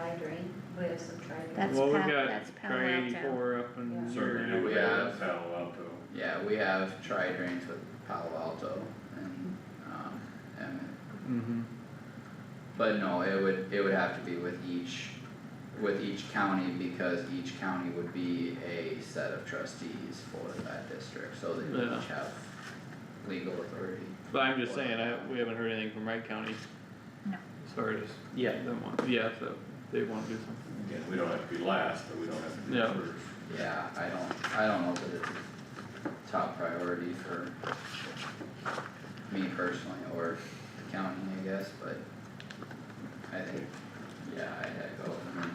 tri-drain, we have some tri-drain. That's Well, we Pal- got that's Palo try Alto. eighty-four up and. Certainly do we have- have Palo Alto. Yeah, we have tri drains with Palo Alto and, um, Emmett. Mm-hmm, But no, it would, it would have to be with each, with each county, because each county would be a set of trustees for that district, so they would Yeah. each have legal authority. but I'm just saying, I, we haven't heard anything from Wright County. No. Sorry, just, yeah, they want, yeah, so they wanna do something, Again, we don't have to be last, but we don't have to be Yeah. first. Yeah, I don't, I don't know that it's a top priority for me personally, or the county, I guess, but I think, yeah, I'd I'd go, I mean,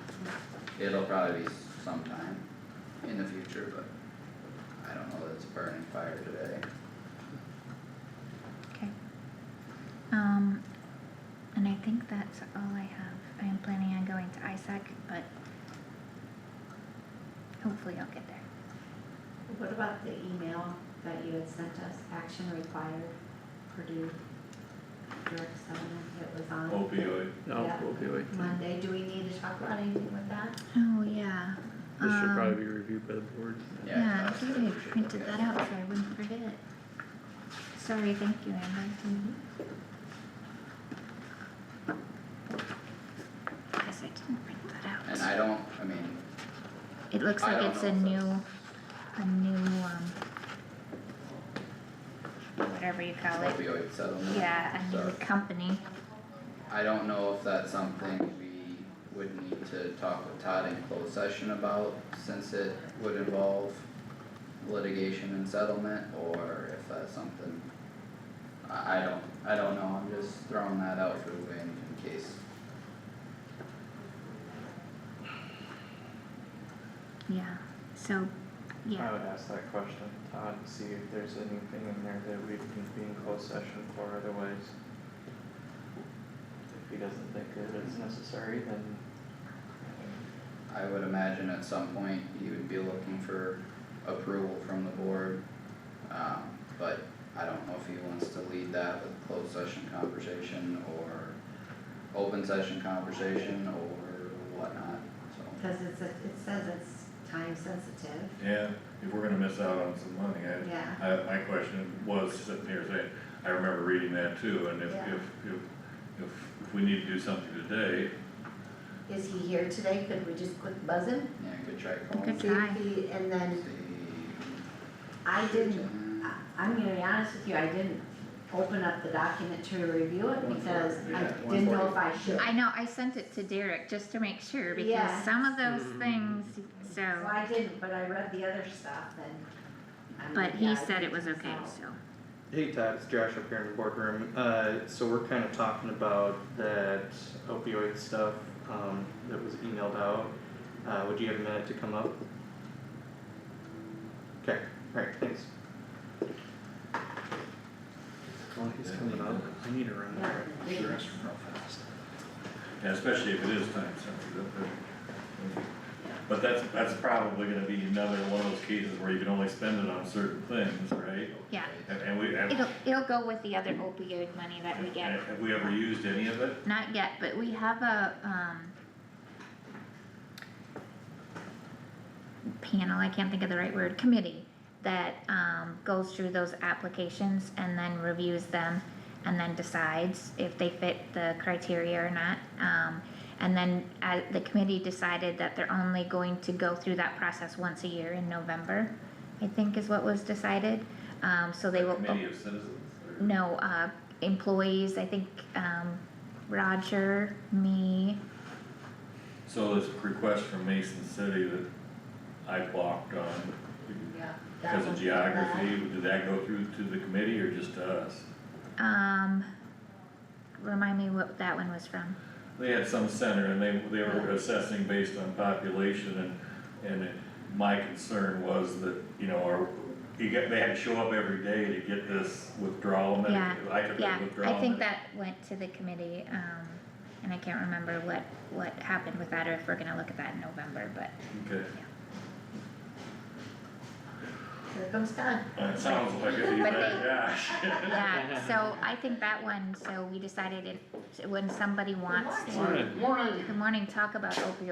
it'll probably be sometime in the future, but I don't know that it's a burning fire today. Okay. Um, and I think that's all I have. I am planning on going to ISAC, but hopefully I'll get there. What about the email that you had sent us, action required, Purdue drug settlement, it was on Opioid, no, Yeah. opioid. Monday, do we need to talk about anything with that? Oh, yeah. This should Um, probably be reviewed by the board. Yeah, Yeah, I that's think what I we should printed look that at. out so I wouldn't forget it. Sorry, thank you, Amber. Guess I didn't print that And out. I don't, I mean, It looks I like don't it's know a if new, that's- a new, um, whatever you call it, opioid settlement. yeah, a new so- company. I don't know if that's something we would need to talk with Todd in closed session about, since it would involve litigation and settlement, or if that's something. I, I don't, I don't know, I'm just throwing that out for the wind in case, Yeah, so, I yeah, would ask that question, to Todd, and see if there's anything in there that we can be in closed session for, otherwise. If he doesn't think that it's necessary, then. I would imagine at some point you would be looking for approval from the board. Um, but I don't know if he wants to lead that with closed session conversation or open session conversation or whatnot, so. Cause it's, a- it says it's time sensitive, yeah, if we're gonna miss out on some money, Yeah. I, I, my question was sitting here saying, I remember reading that too, and if, Yeah. if, if, if, if we need to do something today, is he here today, could we just quick buzz him? Yeah, good try Good calling. See if he- And then I didn't I- I'm gonna be honest with you, I didn't open up the document to review it because I Yeah, didn't know if I 140. should. I know, I sent it to Derek just to make sure, Yeah. because some of those Mm-hmm. Mm. things, So so. I didn't, but I read the other stuff and. I'm But like, he yeah, I said it didn't, was okay, so. so, Hey Todd, it's Josh up here in the boardroom, uh, so we're kinda talking about that opioid stuff, um, that was emailed out, uh, would you have a minute to come up? Okay, alright, thanks. Well, he's coming up, I need to run. Yeah. to the restroom real fast. and especially if it is time sensitive, but. But that's, that's probably gonna be another one of those cases where you can only spend it on certain things, right? yeah. And, and we, have, It'll, it'll go with the other opioid money that we get. have we ever used any of it? Not yet, but we have a, um, panel, I can't think of the right word, committee, that, um, goes through those applications and then reviews them and then decides if they fit the criteria or not. Um, and then, uh, the committee decided that they're only going to go through that process once a year in November, I think is what was decided. Um, so they will. Committee of Citizens? or- No, uh, employees, I think, um, Roger, me, So this request from Mason City that I blocked on Yeah. that because one's of bad. geography, did that go through to the committee or just to us? um, remind me what that one was from. They had some center and they, they were assessing based on population and, and it- my concern was that, you know, our, you get, they had to show up every day to get this withdrawal medic, Yeah, I took Yeah, that withdrawal. I think medic- that went to the committee, um, and I can't remember what, what happened with that or if we're gonna look at that in November, but Okay, So here comes Doug. That sounds like it, you But bet, they- yeah. Yeah, so I think that one, so we decided it, when somebody wants to, Morning. Morning. good morning, talk about opioid